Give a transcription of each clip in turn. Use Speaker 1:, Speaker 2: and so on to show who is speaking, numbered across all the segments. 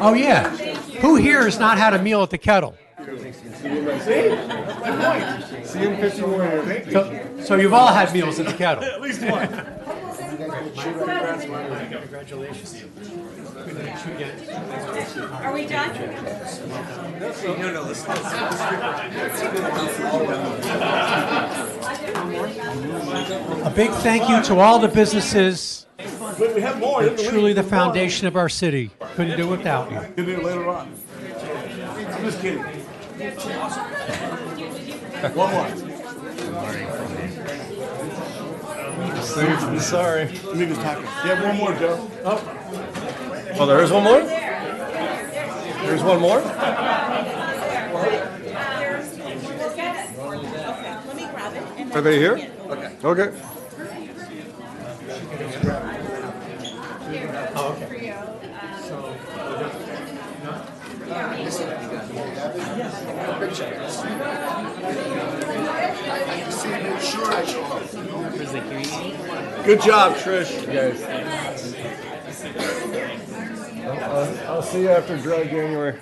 Speaker 1: Oh, yeah. Who here has not had a meal at the kettle?
Speaker 2: See him 51.
Speaker 1: So, so you've all had meals at the kettle.
Speaker 2: At least one.
Speaker 3: Are we done?
Speaker 1: A big thank you to all the businesses,
Speaker 2: But we have more. Didn't we?
Speaker 1: truly the foundation of our city. Couldn't do it without you.
Speaker 2: Did it later on. I'm just kidding. One more.
Speaker 4: Sorry.
Speaker 2: Let me just talk. Yeah, one more, Joe.
Speaker 4: Oh, there is one more? There's one more? Are they here? Okay. Okay.
Speaker 2: Good job, Trish.
Speaker 4: I'll see you after dry January.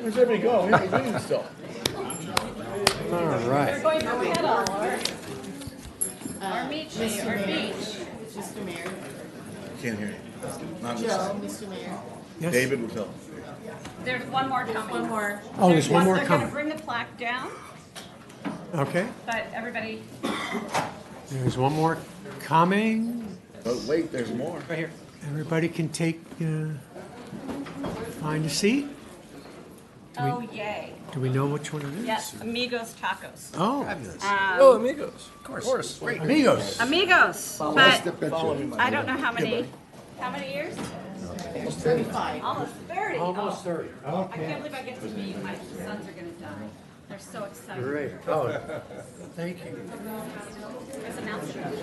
Speaker 2: Where's everybody go? He's waiting still.
Speaker 1: All right.
Speaker 3: Going to kettle or? Or meat, or beach.
Speaker 5: Mr. Mayor,
Speaker 2: Can't hear you. Not
Speaker 5: Joe, Mr. Mayor,
Speaker 1: Yes.
Speaker 2: David will tell.
Speaker 3: There's one more coming.
Speaker 5: one more.
Speaker 1: Oh, there's one more
Speaker 3: They're gonna
Speaker 1: coming.
Speaker 3: bring the plaque down,
Speaker 1: Okay.
Speaker 3: but everybody,
Speaker 1: There's one more coming.
Speaker 2: But wait, there's more.
Speaker 1: Right here. Everybody can take, uh, find a seat.
Speaker 3: oh yay.
Speaker 1: Do we know which one it is?
Speaker 3: Yes, Amigos Tacos.
Speaker 1: Oh,
Speaker 4: Oh, amigos. Of course. Of course. Great.
Speaker 1: amigos.
Speaker 3: Amigos,
Speaker 2: the
Speaker 3: but
Speaker 2: picture.
Speaker 3: I don't know how many, how many years? Almost thirty.
Speaker 1: Almost
Speaker 3: Oh,
Speaker 1: thirty.
Speaker 3: I can't believe I get to meet, my sons are gonna die. They're so excited.
Speaker 1: Great. Oh, thank you.
Speaker 3: There's an announcement.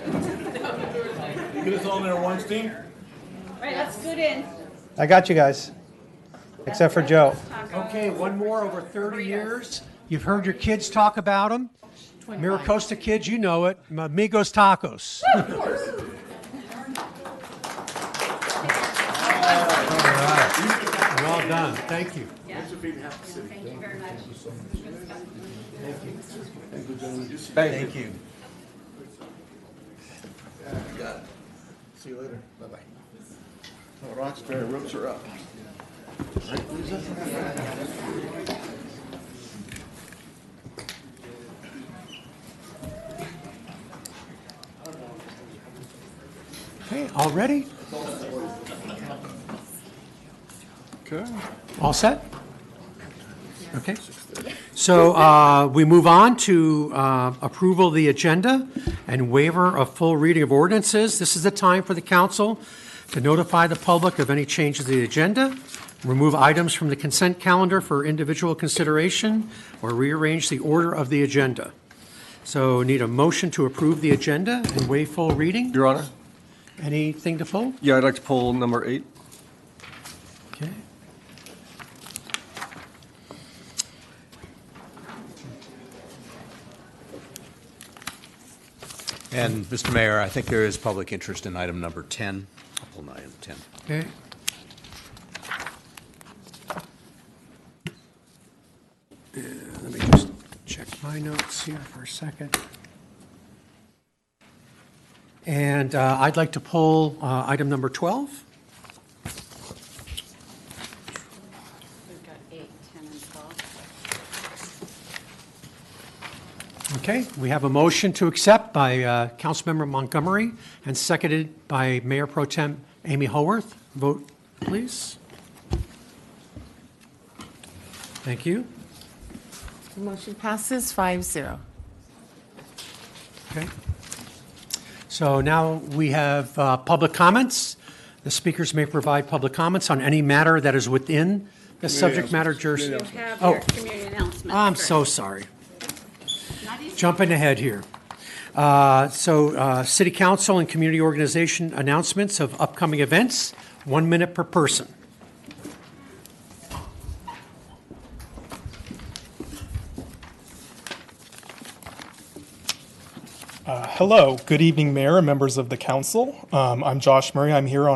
Speaker 2: Get us all in there once, team.
Speaker 3: Right, let's scoot in.
Speaker 6: I got you guys, except for Joe.
Speaker 3: Taco.
Speaker 1: Okay, one more over 30 years. You've heard your kids talk about them. Miracosta kids, you know it. Amigos Tacos. All right. Well done. Thank you.
Speaker 3: Thank you very much.
Speaker 4: Thank you.
Speaker 2: See you later. Bye bye. Roxbury ropes are up.
Speaker 1: Okay, all ready?
Speaker 4: Okay.
Speaker 1: All set? Okay. So uh, we move on to uh, approval of the agenda and waiver of full reading of ordinances. This is the time for the council to notify the public of any changes to the agenda, remove items from the consent calendar for individual consideration, or rearrange the order of the agenda. So need a motion to approve the agenda and waive full reading.
Speaker 4: Your Honor?
Speaker 1: Anything to fold?
Speaker 4: Yeah, I'd like to pull number eight.
Speaker 1: Okay.
Speaker 7: And, Mr. Mayor, I think there is public interest in item number 10. I'll pull item 10.
Speaker 1: Okay. Uh, Let me just check my notes here for a second. And uh, I'd like to pull uh, item number 12.
Speaker 3: We've got eight, ten, and twelve.
Speaker 1: Okay, we have a motion to accept by uh, Councilmember Montgomery and seconded by Mayor Pro Tem Amy Haworth. Vote, please. Thank you.
Speaker 5: The motion passes five zero.
Speaker 1: Okay. So now we have uh, public comments. The speakers may provide public comments on any matter that is within the subject matter
Speaker 3: You
Speaker 1: jurisdiction.
Speaker 3: have
Speaker 1: Oh.
Speaker 3: your community announcement.
Speaker 1: I'm
Speaker 3: first.
Speaker 1: so sorry.
Speaker 3: Not easy.
Speaker 1: Jumping ahead here. Uh, So, uh, city council and community organization announcements of upcoming events, one minute per person.
Speaker 8: Hello, good evening, Mayor and members of the council. Um, I'm Josh Murray. I'm here on